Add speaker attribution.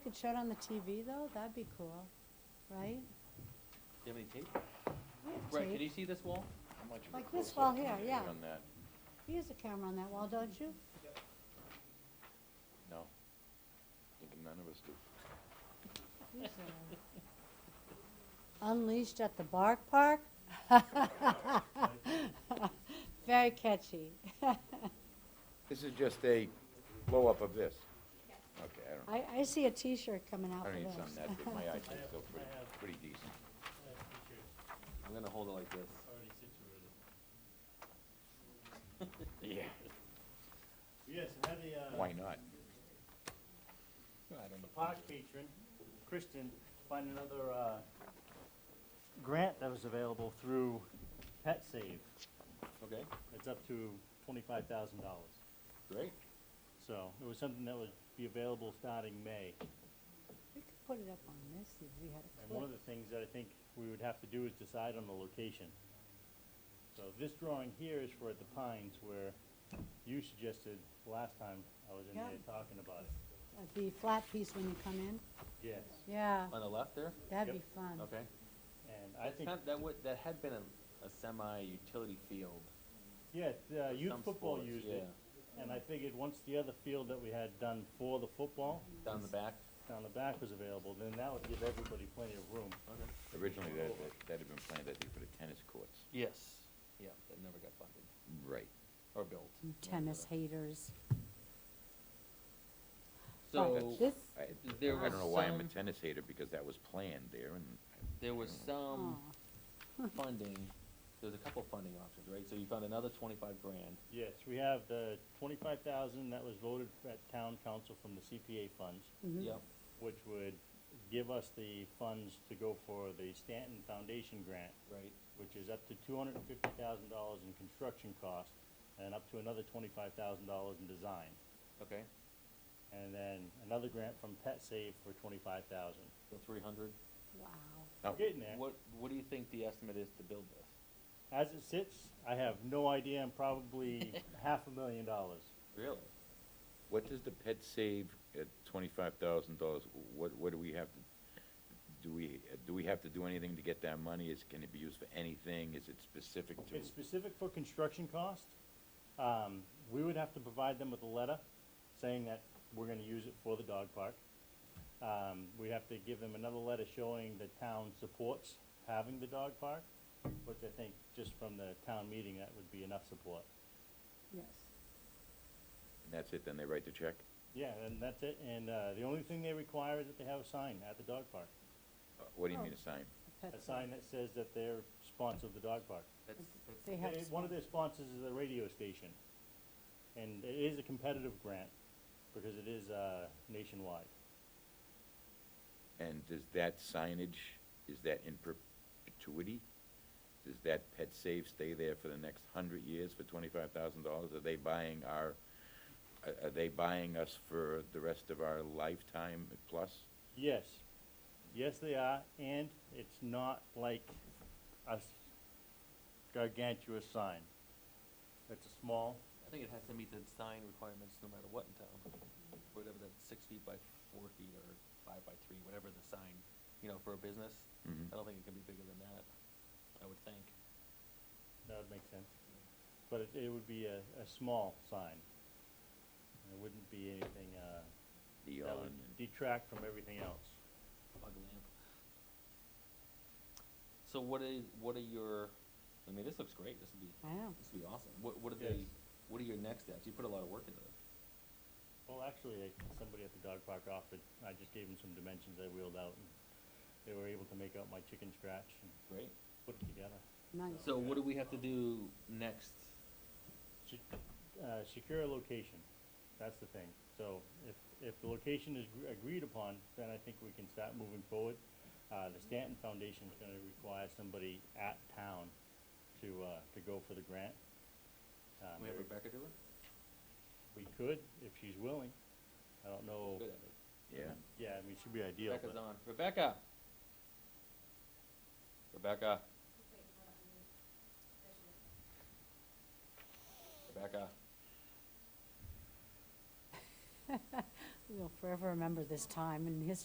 Speaker 1: could show it on the TV though, that'd be cool, right?
Speaker 2: Do you have any tape? Right,
Speaker 1: Tape.
Speaker 2: can you see this wall?
Speaker 3: How much of a
Speaker 1: Like this
Speaker 3: close-up
Speaker 1: wall
Speaker 3: can
Speaker 1: here,
Speaker 3: you get
Speaker 1: yeah.
Speaker 3: On that,
Speaker 1: You use a camera on that wall, don't you?
Speaker 3: no. Thinking none of us do.
Speaker 1: Use it. Unleashed at the Bark Park? Very catchy.
Speaker 3: This is just a blow-up of this. Okay, I don't,
Speaker 1: I, I see a T-shirt coming out
Speaker 3: I
Speaker 1: for
Speaker 3: don't need
Speaker 1: this.
Speaker 3: something that big, my eyesight's still pretty, pretty decent.
Speaker 2: I'm gonna hold it like this.
Speaker 4: already situated.
Speaker 3: Yeah.
Speaker 4: Yes, and had the, uh,
Speaker 3: Why not?
Speaker 4: park patron, Kristen, find another, uh, grant that was available through Pet Save.
Speaker 3: Okay,
Speaker 4: It's up to twenty-five thousand dollars.
Speaker 3: great.
Speaker 4: So it was something that would be available starting May.
Speaker 1: We could put it up on this if we had a
Speaker 4: And
Speaker 1: clip.
Speaker 4: one of the things that I think we would have to do is decide on the location. So this drawing here is for the Pines where you suggested last time I was in
Speaker 1: Yeah.
Speaker 4: there talking about it.
Speaker 1: Uh, The flat piece when you come in.
Speaker 4: Yes.
Speaker 1: Yeah,
Speaker 2: On the left there?
Speaker 1: that'd
Speaker 4: Yep.
Speaker 1: be fun.
Speaker 2: Okay.
Speaker 4: And I
Speaker 2: That's
Speaker 4: think,
Speaker 2: kind- That would, that had been a, a semi-utility field.
Speaker 4: yeah, uh, youth
Speaker 2: Some
Speaker 4: football
Speaker 2: sports,
Speaker 4: used
Speaker 2: yeah.
Speaker 4: it. And I figured once the other field that we had done for the football
Speaker 2: Down the back.
Speaker 4: down the back was available, then that would give everybody plenty of room.
Speaker 2: Okay.
Speaker 3: Originally, that, that- that had been planned, I think, for the tennis courts.
Speaker 2: Yes. Yeah, that never got funded
Speaker 3: Right.
Speaker 2: or built.
Speaker 1: You Tennis haters.
Speaker 2: So,
Speaker 1: But Oh, This,
Speaker 3: I,
Speaker 2: There
Speaker 3: I
Speaker 2: was
Speaker 3: don't know why I'm a
Speaker 2: some-
Speaker 3: tennis hater, because that was planned there, and
Speaker 2: there was
Speaker 1: oh,
Speaker 2: some funding, there was a couple funding options, right? So you found another twenty-five grand.
Speaker 4: Yes, we have the twenty-five thousand that was voted at town council from the CPA funds,
Speaker 1: mhm.
Speaker 2: Yep.
Speaker 4: which would give us the funds to go for the Stanton Foundation grant,
Speaker 2: Right.
Speaker 4: which is up to two hundred and fifty thousand dollars in construction costs and up to another twenty-five thousand dollars in design.
Speaker 2: Okay.
Speaker 4: And then another grant from Pet Save for twenty-five thousand.
Speaker 2: So three hundred.
Speaker 1: wow.
Speaker 3: Oh.
Speaker 4: Getting there.
Speaker 2: What, what do you think the estimate is to build this?
Speaker 4: As it sits, I have no idea, I'm probably half a million dollars.
Speaker 2: Really?
Speaker 3: what does the pet save at twenty-five thousand dollars? What, what do we have to, do we, do we have to do anything to get that money? Is, can it be used for anything? Is it specific to?
Speaker 4: It's specific for construction costs. Um, we would have to provide them with a letter saying that we're gonna use it for the dog park. Um, we have to give them another letter showing the town supports having the dog park, which I think just from the town meeting, that would be enough support.
Speaker 1: Yes.
Speaker 3: And that's it, then they write the check?
Speaker 4: Yeah, and that's it, and, uh, the only thing they require is that they have a sign at the dog park,
Speaker 3: Uh, What do you
Speaker 1: Oh.
Speaker 3: mean a sign?
Speaker 1: A
Speaker 4: a
Speaker 1: pet-
Speaker 4: sign that says that they're sponsor of the dog park.
Speaker 2: That's, that's
Speaker 1: They have.
Speaker 4: They- One of their sponsors is a radio station, and it is a competitive grant, because it is uh, nationwide.
Speaker 3: And does that signage, is that in perpetuity? Does that pet save stay there for the next hundred years for twenty-five thousand dollars? Are they buying our, are, are they buying us for the rest of our lifetime plus?
Speaker 4: Yes, yes, they are, and it's not like a s- gargantuous sign. It's a small,
Speaker 2: I think it has to meet the sign requirements no matter what in town, whatever that six feet by four feet or five by three, whatever the sign, you know, for a business.
Speaker 3: Mhm.
Speaker 2: I don't think it can be bigger than that, I would think.
Speaker 4: that would make sense, but it, it would be a, a small sign. It wouldn't be anything uh, that
Speaker 3: Neon,
Speaker 4: would detract from everything else.
Speaker 2: Bug lamp. So what is, what are your, I mean, this looks great, this would be,
Speaker 1: Wow.
Speaker 2: this would be awesome. What, what are they,
Speaker 4: Yes.
Speaker 2: what are your next steps? You put a lot of work into this.
Speaker 4: Well, actually, I- somebody at the dog park offered, I just gave them some dimensions I wheeled out, and they were able to make out my chicken scratch and
Speaker 2: Great.
Speaker 4: put it together.
Speaker 1: Nice.
Speaker 2: So what do we have to do next?
Speaker 4: Se- uh, Secure a location, that's the thing. So if, if the location is gr- agreed upon, then I think we can start moving forward. Uh, The Stanton Foundation is gonna require somebody at town to, uh, to go for the grant. Um,
Speaker 2: We have Rebecca do it?
Speaker 4: We could, if she's willing. I don't know,
Speaker 2: Good at it.
Speaker 3: yeah.
Speaker 4: yeah, I mean, she'd be ideal,
Speaker 2: Rebecca's
Speaker 4: but
Speaker 2: on. Rebecca! Rebecca. Rebecca.
Speaker 1: We'll forever remember this time in history.